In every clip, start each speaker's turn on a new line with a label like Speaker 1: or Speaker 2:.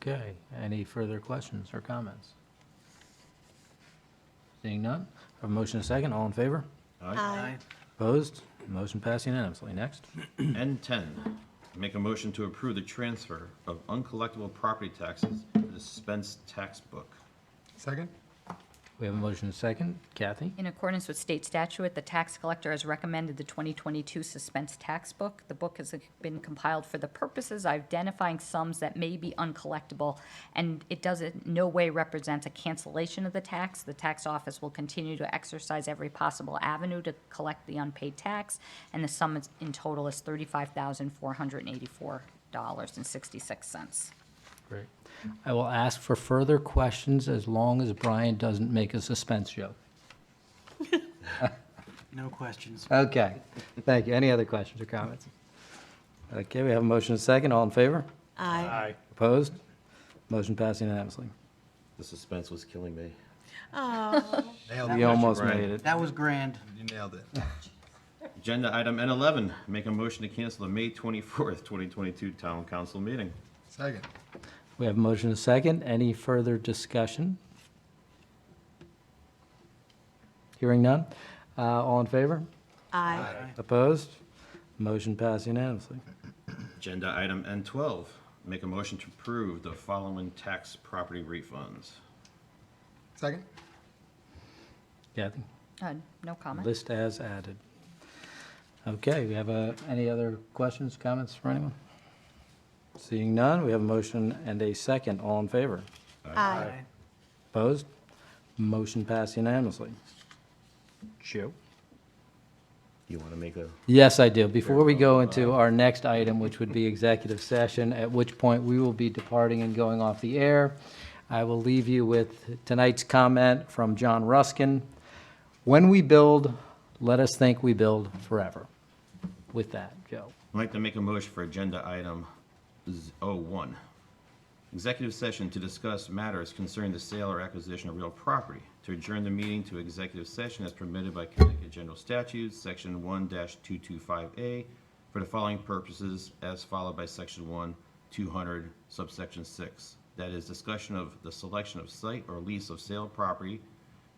Speaker 1: Okay, any further questions or comments? Seeing none, have a motion and a second, all in favor?
Speaker 2: Aye.
Speaker 1: Opposed? Motion passed unanimously. Next.
Speaker 2: N10, make a motion to approve the transfer of uncollectible property taxes to the suspense tax book.
Speaker 3: Second?
Speaker 1: We have a motion and a second. Kathy?
Speaker 4: In accordance with state statute, the tax collector has recommended the 2022 suspense tax book. The book has been compiled for the purposes of identifying sums that may be uncollectible, and it does in no way represents a cancellation of the tax. The tax office will continue to exercise every possible avenue to collect the unpaid tax, and the sum is- in total is $35,484.66.
Speaker 1: Great. I will ask for further questions as long as Brian doesn't make a suspense joke.
Speaker 5: No questions.
Speaker 1: Okay, thank you. Any other questions or comments? Okay, we have a motion and a second. All in favor?
Speaker 6: Aye.
Speaker 1: Opposed? Motion passed unanimously.
Speaker 2: The suspense was killing me.
Speaker 3: Nailed
Speaker 1: We almost
Speaker 2: Brian.
Speaker 1: made it.
Speaker 5: That was grand.
Speaker 3: You nailed it.
Speaker 2: Agenda item N11, make a motion to cancel the May 24th, 2022 town council meeting.
Speaker 3: Second.
Speaker 1: We have a motion and a second. Any further discussion? Hearing none. Uh, All in favor?
Speaker 6: Aye.
Speaker 1: Opposed? Motion passed unanimously.
Speaker 2: Agenda item N12, make a motion to approve the following tax property refunds.
Speaker 3: Second?
Speaker 1: Kathy?
Speaker 4: Uh, No comment?
Speaker 1: List as added. Okay, we have uh, any other questions, comments from anyone? Seeing none, we have a motion and a second. All in favor?
Speaker 6: Aye.
Speaker 1: Opposed? Motion passed unanimously. Joe?
Speaker 2: You want to make a?
Speaker 1: Yes, I do. Before we go into our next item, which would be executive session, at which point we will be departing and going off the air, I will leave you with tonight's comment from John Ruskin. When we build, let us think we build forever. With that, Joe.
Speaker 2: I'd like to make a motion for agenda item z- 01. Executive session to discuss matters concerning the sale or acquisition of real property. To adjourn the meeting to executive session as permitted by Connecticut General Statutes, Section 1-225A, for the following purposes as followed by Section 1, 200, subsection 6. That is discussion of the selection of site or lease of sale property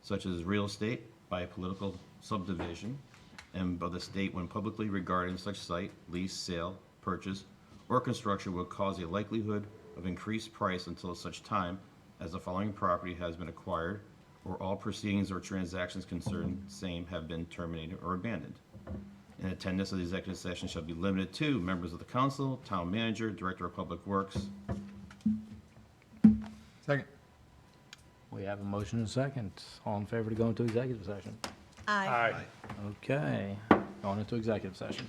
Speaker 2: such as real estate by a political subdivision and of the state when publicly regarding such site, lease, sale, purchase, or construction will cause a likelihood of increased price until such time as the following property has been acquired or all proceedings or transactions concerned same have been terminated or abandoned. And attendance of the executive session shall be limited to members of the council, town manager, director of public works.
Speaker 3: Second.
Speaker 1: We have a motion and a second. All in favor to go into executive session?
Speaker 6: Aye.
Speaker 1: Okay, going into executive session.